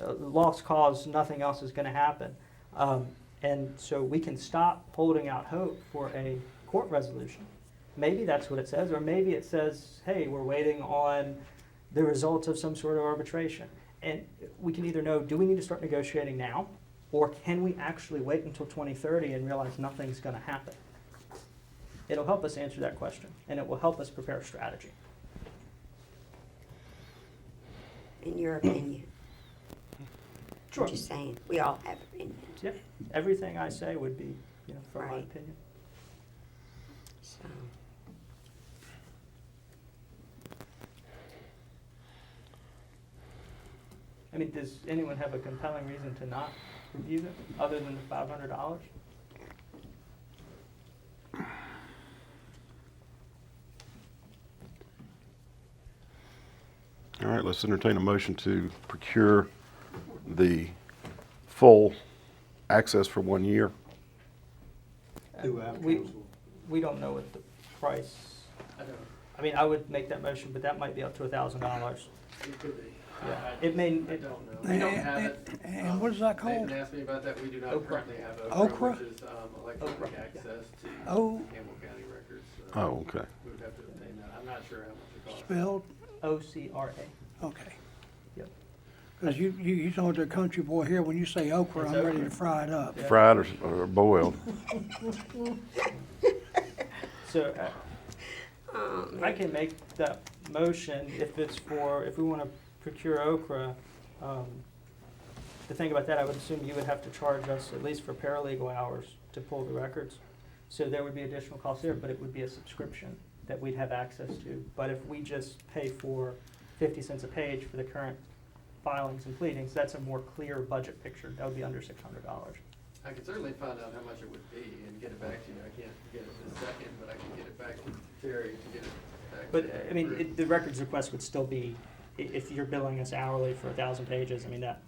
uh, lost cause, nothing else is going to happen. Um, and so we can stop holding out hope for a court resolution. Maybe that's what it says, or maybe it says, hey, we're waiting on the results of some sort of arbitration. And we can either know, do we need to start negotiating now, or can we actually wait until 2030 and realize nothing's going to happen? It'll help us answer that question, and it will help us prepare a strategy. in your opinion. Sure. I'm just saying, we all have opinions, Yep. Everything I say would be, you know, from my Right. opinion. so. I mean, does anyone have a compelling reason to not review them, other than the five hundred dollars? All right, let's entertain a motion to procure the full access for one year. Uh, We, we don't know what the price, I don't, I mean, I would make that motion, but that might be up to a thousand dollars. it could be. Yeah. I- It may, I it- don't know. We don't have it. And Um, what is that They called? didn't ask me about that. We do not Okra. currently have Okra? Okra, which is um, electronic Okra, yeah. Oh. access to O Campbell County records. so Oh, okay. We would have to obtain that. I'm not sure how much it costs. spelled, OCRA. okay. Yep. Because you, you, you told the country boy here, when you say okra, It's I'm ready okra. to fry it up. Yeah. Fried or, or boiled? So uh, Oh, I man. can make that motion if it's for, if we want to procure okra. um, The thing about that, I would assume you would have to charge us at least for paralegal hours to pull the records. So there would be additional cost there, but it would be a subscription that we'd have access to. But if we just pay for fifty cents a page for the current filings and pleadings, that's a more clear budget picture. That would be under six hundred dollars. I could certainly find out how much it would be and get it back to you. I can't get it this second, but I can get it back to Terry to get it back. But, to uh, the I mean, group. it- the records request would still be, i- if you're billing us hourly for a thousand pages, I mean, that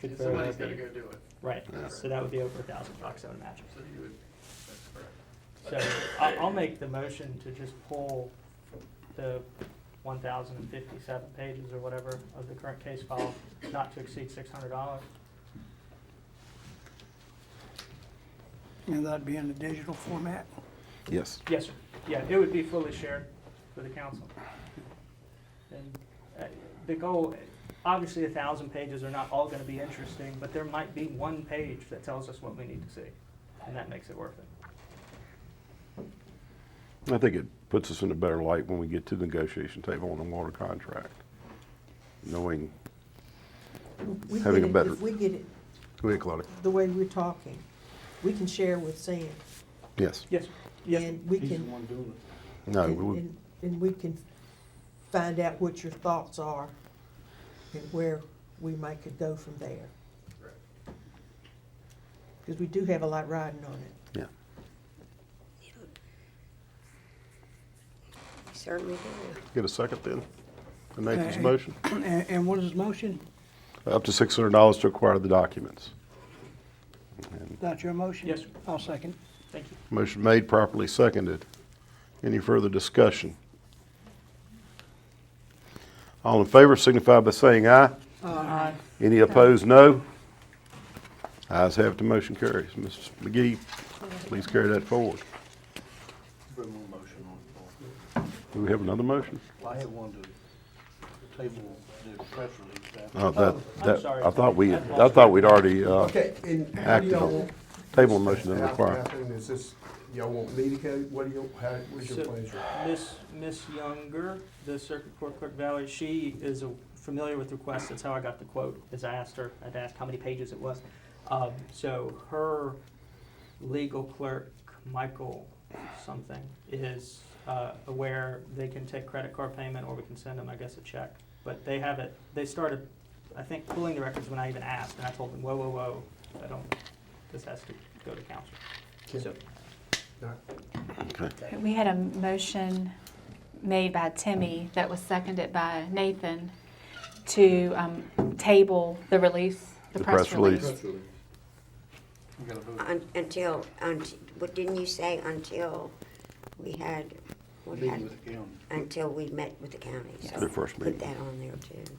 could And very well Somebody's got to be. go do it, Right, Yeah. so that would be over a thousand bucks, I would imagine. so you would, that's correct. So I'll, I'll make the motion to just pull the one thousand and fifty-seven pages or whatever of the current case file, not to exceed six hundred dollars. And that'd be in the digital format. Yes. Yes, sir. Yeah, it would be fully shared with the council. And uh, the goal, obviously, a thousand pages are not all gonna be interesting, but there might be one page that tells us what we need to see, and that makes it worth it. I think it puts us in a better light when we get to the negotiation table on the water contract, knowing, We having get a it- better- If we get it go ahead, Claudia. the way we're talking, we can share with Sam. Yes. Yes, yes, And we can, No, and- we- and, and we can find out what your thoughts are and where we might could go from there. Right. Because we do have a lot riding on it. You Certainly do. get a second then? To Nathan's Okay. motion? And, and what is his motion? Up to six hundred dollars to acquire the documents. That's your motion? Yes, sir. I'll second. thank you. Motion made, properly seconded. Any further discussion? All in favor signify by saying aye. Aye. Any opposed, no. Ayes have it, the motion carries. Mrs. McGee, please carry that forward. Bring one motion on the floor. Do we have another motion? Well, I have one to table the press release. Oh, after- that, I'm that, sorry. I thought we, I've I lost thought we'd already, uh, Okay, and how do acted y'all on. want? Table motion doesn't After- require. after, Is this, y'all want me to go, what do you, how, what's your So- pleasure? Miss, Miss Younger, the Circuit Court Clerk Valerie, she is a- familiar with requests, that's how I got the quote, is I asked her, I'd asked how many pages it was. Um, so her legal clerk, Michael something, is, uh, aware they can take credit card payment or we can send them, I guess, a check. But they have it, they started, I think, pulling the records when I even asked, and I told them, whoa, whoa, whoa, I don't, this has to go to council. Can- So, Okay. We had a motion made by Timmy that was seconded by Nathan to um, table the release, the press release. We gotta vote. Un- Until, until, what didn't you say, until we had, we Meeting had, with the county. until we met with the county, so. Their first meeting. Put that on there too.